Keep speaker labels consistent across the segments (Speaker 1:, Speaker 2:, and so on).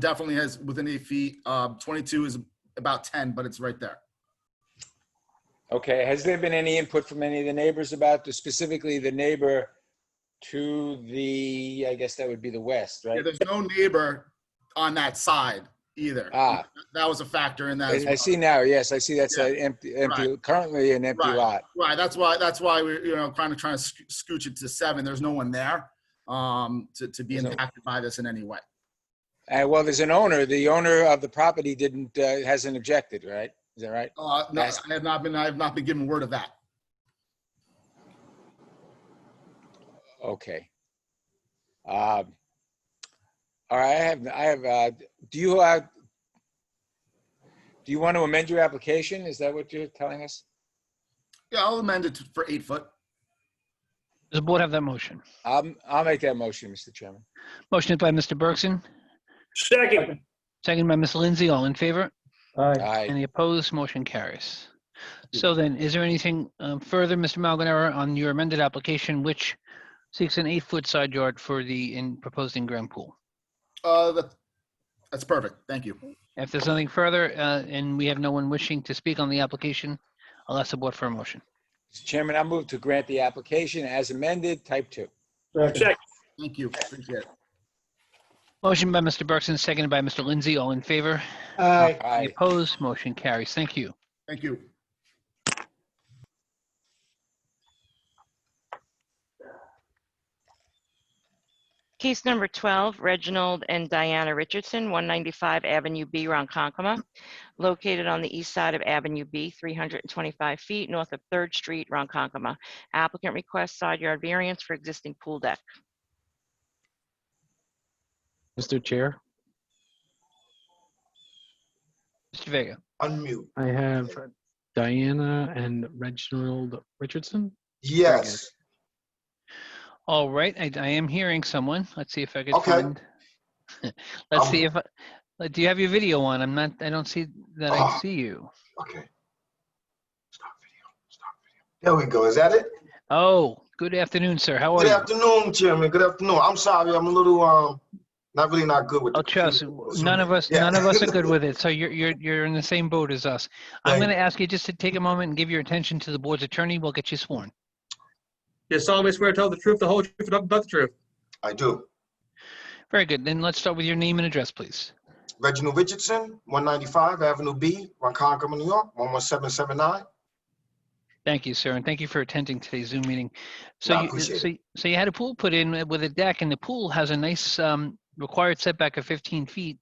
Speaker 1: definitely has within eight feet. Um, 22 is about 10, but it's right there.
Speaker 2: Okay, has there been any input from any of the neighbors about this, specifically the neighbor to the, I guess that would be the west,
Speaker 1: Yeah,
Speaker 2: right?
Speaker 1: there's no neighbor on that side either.
Speaker 2: Ah.
Speaker 1: That was a factor in that. as
Speaker 2: I
Speaker 1: well.
Speaker 2: see now, yes, I see that's an empty, empty, currently an empty
Speaker 1: Right.
Speaker 2: lot.
Speaker 1: Right, that's why, that's why we're, you know, kind of trying to sc- scooch it to seven. There's no one there um, to, to be
Speaker 2: There's no-
Speaker 1: impacted by this in any way.
Speaker 2: Uh, well, there's an owner, the owner of the property didn't, uh, hasn't objected, right? Is that right?
Speaker 1: Uh, no,
Speaker 2: Nice.
Speaker 1: I have not been, I have not been given word of that.
Speaker 2: Okay. Um, All right, I have, I have, uh, do you, uh, do you want to amend your application? Is that what you're telling us?
Speaker 1: Yeah, I'll amend it to- for eight foot.
Speaker 3: Does the board have that motion?
Speaker 2: I'm, Um, I'll make that motion, Mr. Chairman.
Speaker 3: Motion by Mr. Bergson,
Speaker 4: Second.
Speaker 3: second by Ms. Lindsay, all in favor?
Speaker 4: Aye.
Speaker 2: Aye.
Speaker 3: Any opposed? Motion carries. So then, is there anything um, further, Mr. Malganera, on your amended application, which seeks an eight-foot side yard for the in- proposed in-ground pool?
Speaker 1: Uh, that, that's perfect. Thank you.
Speaker 3: If there's nothing further, uh, and we have no one wishing to speak on the application, I'll ask the board for a motion.
Speaker 2: Mr. Chairman, I move to grant the application as amended, type two.
Speaker 4: Second.
Speaker 1: Thank you. Appreciate it.
Speaker 3: Motion by Mr. Bergson, seconded by Mr. Lindsay, all in favor?
Speaker 4: Aye.
Speaker 3: Any
Speaker 2: Aye.
Speaker 3: opposed? Motion carries. Thank you.
Speaker 1: Thank you.
Speaker 5: Case number 12, Reginald and Diana Richardson, 195 Avenue B, Ronkonkoma, located on the east side of Avenue B, 325 feet north of 3rd Street, Ronkonkoma. Applicant requests side yard variance for existing pool deck.
Speaker 6: Mr. Chair,
Speaker 3: Mr. Vega,
Speaker 7: Unmute.
Speaker 6: I have Diana and Reginald Richardson.
Speaker 7: Yes.
Speaker 3: all right, I, I am hearing someone. Let's see if I could
Speaker 7: Okay.
Speaker 3: find. Let's
Speaker 7: Um,
Speaker 3: see if, I- uh, do you have your video on? I'm not, I don't see that I
Speaker 7: Ah.
Speaker 3: see you.
Speaker 7: Okay. Stop video. Stop video. There we go. Is that it?
Speaker 3: Oh, good afternoon, sir. How are
Speaker 7: Good
Speaker 3: you?
Speaker 7: afternoon, Chairman. Good afternoon. I'm sorry. I'm a little um, not really not good with.
Speaker 3: Oh,
Speaker 7: the
Speaker 3: trust,
Speaker 7: computer.
Speaker 3: none of us,
Speaker 7: Yeah.
Speaker 3: none of us are good with it. So you're, you're, you're in the same boat as us. I'm
Speaker 7: Thank-
Speaker 3: going to ask you just to take a moment and give your attention to the board's attorney. We'll get you sworn.
Speaker 8: You solemnly swear to tell the truth, the whole truth, and nothing but the truth.
Speaker 7: I do.
Speaker 3: Very good. Then let's start with your name and address, please.
Speaker 7: Reginald Richardson, 195 Avenue B, Ronkonkoma, New York, 11779.
Speaker 3: Thank you, sir, and thank you for attending today's Zoom meeting. So,
Speaker 7: I
Speaker 3: you,
Speaker 7: appreciate
Speaker 3: so, so you had a pool put in with a deck, and the pool has a nice um, required setback of 15 feet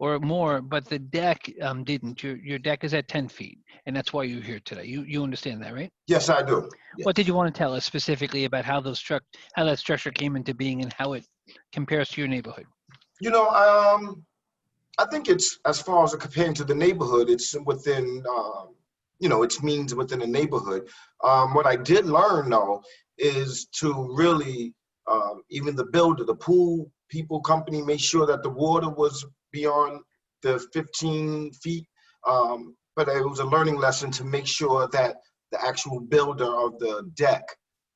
Speaker 3: or more, but the deck um, didn't. Your your deck is at 10 feet, and that's why you're here today. You you understand that, right?
Speaker 7: Yes, I do.
Speaker 3: What did you want to tell us specifically about how those struct how that structure came into being and how it compares to your neighborhood?
Speaker 7: You know, um, I think it's as far as comparing to the neighborhood, it's within, um, you know, it's means within the neighborhood. Um, what I did learn though is to really, um, even the builder, the pool people company, made sure that the water was beyond the 15 feet. Um, but it was a learning lesson to make sure that the actual builder of the deck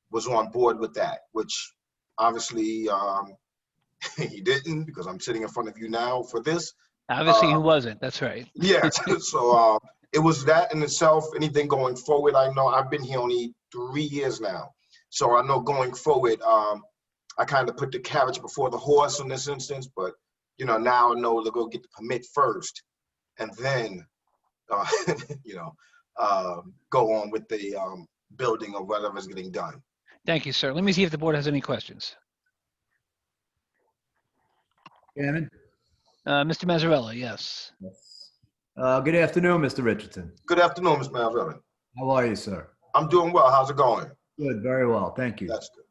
Speaker 7: was on board with that, which obviously um, he didn't because I'm sitting in front of you now for this.
Speaker 3: Obviously,
Speaker 7: Uh,
Speaker 3: who wasn't? That's right.
Speaker 7: Yeah, so uh, it was that in itself. Anything going forward, I know I've been here only three years now, so I know going forward, um, I kind of put the carriage before the horse in this instance. But you know, now I know to go get the permit first, and then uh, you know uh, go on with the um, building or whatever's getting done.
Speaker 3: Thank you, sir. Let me see if the board has any questions.
Speaker 9: Gannon?
Speaker 3: Uh, Mr. Mazzarella, yes.
Speaker 9: Uh, good afternoon, Mr. Richardson.
Speaker 7: Good afternoon, Ms. Malvern.
Speaker 9: How are you, sir?
Speaker 7: I'm doing well. How's it going?
Speaker 9: Good, very well, thank you.
Speaker 7: That's good.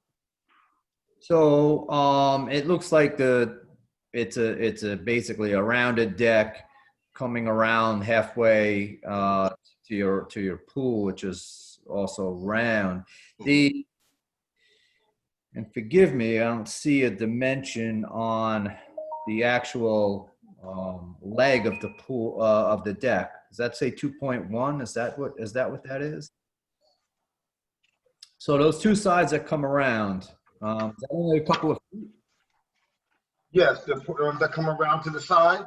Speaker 9: So, um, it looks like the, it's a, it's a basically a rounded deck coming around halfway, uh, to your, to your pool, which is also round. The, and forgive me, I don't see a dimension on the actual, um, leg of the pool, uh, of the deck. Does that say 2.1? Is that what, is that what that is? So those two sides that come around, um, is that only a couple of feet?
Speaker 7: Yes, the, ones that come around to the side.